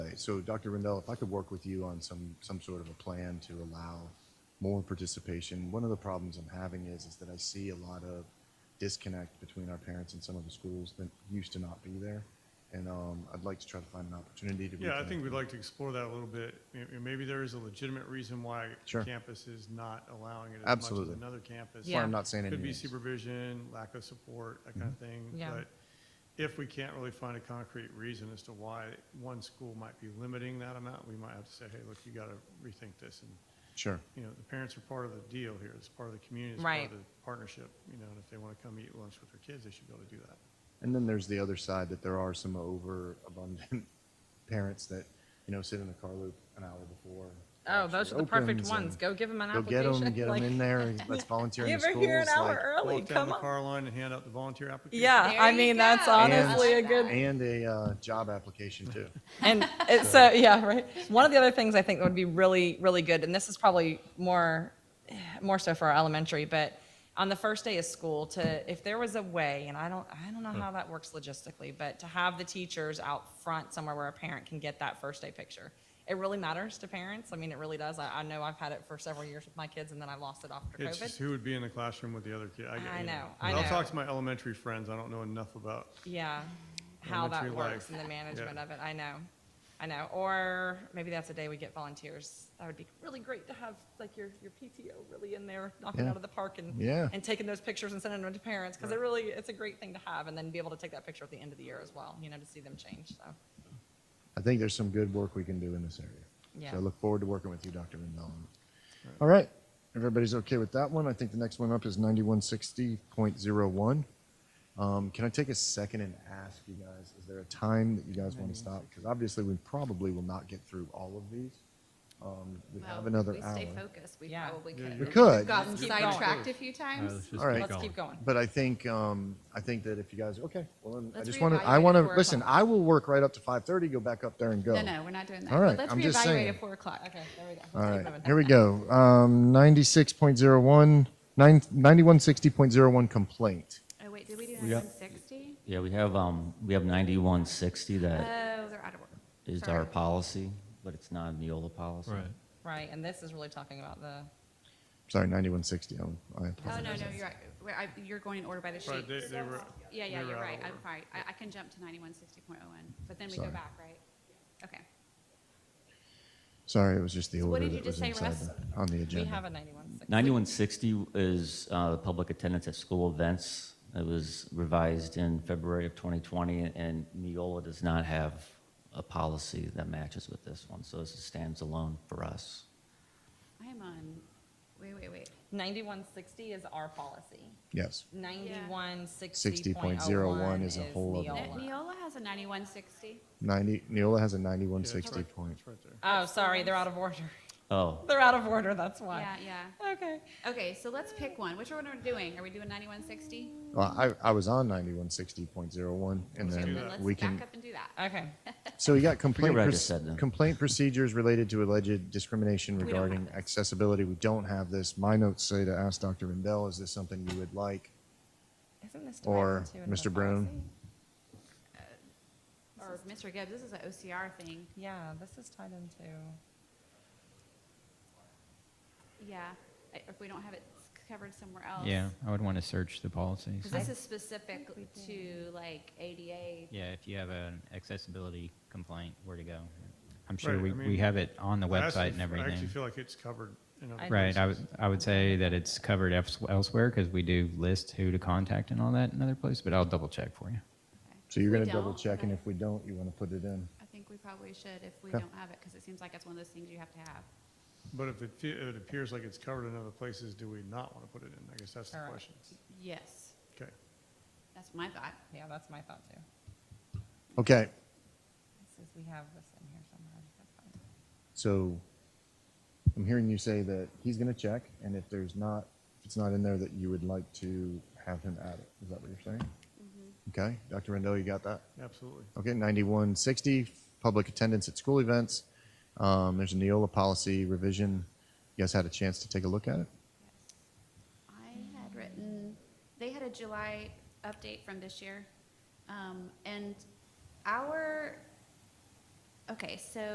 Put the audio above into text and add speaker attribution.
Speaker 1: so Dr. Rendell, if I could work with you on some, some sort of a plan to allow more participation. One of the problems I'm having is, is that I see a lot of disconnect between our parents and some of the schools that used to not be there. And, um, I'd like to try to find an opportunity to.
Speaker 2: Yeah, I
Speaker 1: reconnect.
Speaker 2: think we'd like to explore that a little bit. May- Maybe there is a legitimate reason why
Speaker 1: Sure.
Speaker 2: campus is not allowing it as much
Speaker 1: Absolutely.
Speaker 2: as another campus.
Speaker 1: That's why
Speaker 3: Yeah.
Speaker 1: I'm not saying
Speaker 2: Could be
Speaker 1: anything. Mm-hmm.
Speaker 2: supervision, lack of support, that kind of thing.
Speaker 3: Yeah.
Speaker 2: But if we can't really find a concrete reason as to why one school might be limiting that amount, we might have to say, hey, look, you got to rethink this. And,
Speaker 1: Sure.
Speaker 2: you know, the parents are part of the deal here. It's part of the community. It's
Speaker 3: Right.
Speaker 2: part of the partnership. You know, and if they want to come eat lunch with their kids, they should be able to do that.
Speaker 1: And then there's the other side that there are some overabundant parents that, you know, sit in the car loop an hour before.
Speaker 3: Oh, those are
Speaker 1: actually
Speaker 3: the perfect
Speaker 1: opens
Speaker 3: ones.
Speaker 1: and
Speaker 3: Go give them an
Speaker 1: Go get
Speaker 3: application.
Speaker 1: them, get them
Speaker 3: Like,
Speaker 1: in there, and let's volunteer in the
Speaker 4: Give
Speaker 1: schools.
Speaker 4: her here an
Speaker 1: like-
Speaker 4: hour early,
Speaker 2: Walk down
Speaker 4: come
Speaker 2: the
Speaker 4: on.
Speaker 2: car line and hand out the volunteer application.
Speaker 4: Yeah,
Speaker 5: There
Speaker 4: I
Speaker 5: you
Speaker 4: mean,
Speaker 5: go.
Speaker 4: that's
Speaker 5: And-
Speaker 4: honestly a good,
Speaker 1: And a uh, job application too.
Speaker 4: and it's, so, yeah, right. One of the other things I think that would be really, really good, and this is probably more, more so for our elementary, but on the first day of school to, if there was a way, and I don't, I don't know
Speaker 1: Hmm.
Speaker 4: how that works logistically, but to have the teachers out front somewhere where a parent can get that first day picture. It really matters to parents. I mean, it really does. I, I know I've had it for several years with my kids and then I lost it after
Speaker 2: It's just
Speaker 4: COVID.
Speaker 2: who would be in the classroom with the other kid. get-
Speaker 4: I
Speaker 2: you
Speaker 4: know, I
Speaker 2: But I'll
Speaker 4: know.
Speaker 2: talk to my elementary friends. I don't know enough about,
Speaker 4: Yeah, how that
Speaker 2: Elementary life.
Speaker 4: works and the management
Speaker 2: Yeah.
Speaker 4: of it, I know, I know. Or maybe that's a day we get volunteers. That would be really great to have, like, your, your PTO really in there knocking
Speaker 1: Yeah.
Speaker 4: out of the park and,
Speaker 1: Yeah.
Speaker 4: and taking those pictures and sending them to parents, because it really, it's a great thing to have, and then be able to take that picture at the end of the year as well, you know, to see them change, so.
Speaker 1: I think there's some good work we can do in this area.
Speaker 4: Yeah.
Speaker 1: So I look forward to working with you, Dr. Rendell. All right, everybody's okay with that one. I think the next one up is 9160.01. Um, Can I take a second and ask you guys, is there a time that you guys want to stop? Because obviously, we probably will not get through all of these. Um, We
Speaker 5: Well,
Speaker 1: have
Speaker 5: if
Speaker 1: another
Speaker 5: we
Speaker 1: hour.
Speaker 5: stay focused, we
Speaker 4: Yeah.
Speaker 5: probably
Speaker 2: Yeah,
Speaker 5: could.
Speaker 1: We could.
Speaker 5: We've gotten
Speaker 4: Keep going.
Speaker 5: sidetracked a few
Speaker 6: Uh,
Speaker 5: times.
Speaker 6: let's just
Speaker 1: All right.
Speaker 6: keep
Speaker 1: Let's
Speaker 4: Let's
Speaker 6: going.
Speaker 4: keep going.
Speaker 1: But I think, um, I think that if you guys, okay, well, then I
Speaker 5: Let's
Speaker 1: just want to, I
Speaker 5: reevaluate
Speaker 1: want
Speaker 5: at
Speaker 1: to,
Speaker 5: four
Speaker 1: listen,
Speaker 5: o'clock.
Speaker 1: I will work right up to 5:30, go back up there and go.
Speaker 5: No, no, we're not doing that.
Speaker 1: All right,
Speaker 5: Let's
Speaker 1: I'm just
Speaker 5: reevaluate
Speaker 1: saying.
Speaker 5: at four o'clock.
Speaker 4: Okay, there we go.
Speaker 1: All
Speaker 4: Let's
Speaker 1: right,
Speaker 4: keep moving.
Speaker 1: here we go. Um, 96.01, nine- 9160.01 complaint.
Speaker 5: Oh, wait, did we do nine sixty?
Speaker 6: Yeah, we have, um, we have 9160
Speaker 5: Oh,
Speaker 6: that
Speaker 5: they're out of order.
Speaker 6: is
Speaker 5: Sorry.
Speaker 6: our policy, but it's not a Neola policy.
Speaker 7: Right.
Speaker 4: Right, and this is really talking about the,
Speaker 1: Sorry, 9160. I'm- I
Speaker 5: Oh,
Speaker 1: apologize.
Speaker 5: no, no, you're right. We're- I- You're going in order by the
Speaker 2: but
Speaker 5: sheet.
Speaker 2: they, they were.
Speaker 5: Yeah,
Speaker 2: they
Speaker 5: yeah,
Speaker 2: were
Speaker 5: you're
Speaker 2: out of
Speaker 5: right. I'm
Speaker 2: order.
Speaker 5: sorry. I, I can jump to ninety-one sixty point oh one, but then we go
Speaker 1: Sorry.
Speaker 5: back, right? Okay.
Speaker 1: Sorry, it was just the
Speaker 5: So what
Speaker 1: order
Speaker 5: did you
Speaker 1: that was
Speaker 5: just say,
Speaker 1: inside
Speaker 5: Russ?
Speaker 1: the- on the
Speaker 4: we have
Speaker 1: agenda.
Speaker 4: a 91.
Speaker 6: 9160 is uh, the public attendance at school events. It was revised in February of 2020, and Neola does not have a policy that matches with this one, so this stands alone for us.
Speaker 5: I am on, wait, wait, wait.
Speaker 4: 9160 is our policy.
Speaker 1: Yes.
Speaker 4: 91,
Speaker 1: 60.01
Speaker 4: 60.01
Speaker 1: is
Speaker 4: is
Speaker 1: a whole other-
Speaker 5: Ne-
Speaker 4: Neola.
Speaker 5: Neola has a ninety-one sixty.
Speaker 1: 90, Neola has a
Speaker 2: Yeah, it's
Speaker 1: 9160
Speaker 2: right-
Speaker 1: point.
Speaker 2: it's right there.
Speaker 4: Oh, sorry, they're out of order.
Speaker 6: Oh,
Speaker 4: They're out of order, that's
Speaker 5: Yeah,
Speaker 4: why.
Speaker 5: yeah.
Speaker 4: Okay.
Speaker 5: Okay, so let's pick one. Which one are we doing? Are we doing ninety-one sixty?
Speaker 1: Well, I, I was on 9160.01 and
Speaker 2: Let's do
Speaker 1: then
Speaker 2: that.
Speaker 5: Let's
Speaker 1: we
Speaker 5: back
Speaker 1: can,
Speaker 5: up and do that.
Speaker 4: Okay.
Speaker 1: so you got complaint,
Speaker 6: what I
Speaker 1: proc-
Speaker 6: just said then.
Speaker 1: complaint procedures related to alleged discrimination
Speaker 5: don't have
Speaker 1: regarding
Speaker 5: this.
Speaker 1: accessibility. We don't have this. My notes say to ask Dr. Rendell, is this something you would like?
Speaker 4: Isn't this
Speaker 1: Or
Speaker 4: directed to another
Speaker 1: Mr. Brown.
Speaker 4: policy?
Speaker 5: Or Mr. Gibbs, this is an OCR thing.
Speaker 4: Yeah, this is tied into,
Speaker 5: Yeah, I- if we don't have it s- covered somewhere else.
Speaker 7: Yeah, I would want to search the policies.
Speaker 5: Because this is specific to like ADA.
Speaker 7: Yeah, if you have an accessibility complaint, where to go. I'm sure
Speaker 2: Right,
Speaker 7: we,
Speaker 2: I mean,
Speaker 7: we have it on the
Speaker 2: I actually-
Speaker 7: website and
Speaker 2: I actually
Speaker 7: everything.
Speaker 2: feel like it's covered. in other
Speaker 4: I-
Speaker 7: Right, I would,
Speaker 2: places.
Speaker 7: I would say that it's covered else- elsewhere because we do list who to contact and all that in other places, but I'll double check for you.
Speaker 1: So you're
Speaker 5: We
Speaker 1: going to double
Speaker 5: don't,
Speaker 1: check and
Speaker 5: right.
Speaker 1: if we don't, you want to put it in.
Speaker 5: I think we probably should if we
Speaker 1: Okay.
Speaker 5: don't have it, because it seems like it's one of those things you have to have.
Speaker 2: But if it, fe- if it appears like it's covered in other places, do we not want to put it in? I guess that's the
Speaker 4: Correct.
Speaker 2: question.
Speaker 5: Yes,
Speaker 2: Okay.
Speaker 5: that's my thought.
Speaker 4: yeah, that's my thought too.
Speaker 1: Okay,
Speaker 4: This is, we have this in here somewhere. That's fine.
Speaker 1: So I'm hearing you say that he's going to check, and if there's not, if it's not in there, that you would like to have him add it. Is that what you're saying?
Speaker 5: Mm-hmm.
Speaker 1: Okay, Dr. Rendell, you got that?
Speaker 2: Absolutely.
Speaker 1: Okay, 9160, public attendance at school events. Um, there's a Neola policy revision. You guys had a chance to take a look at it?
Speaker 5: I had written, they had a July update from this year. Um, and our, okay, so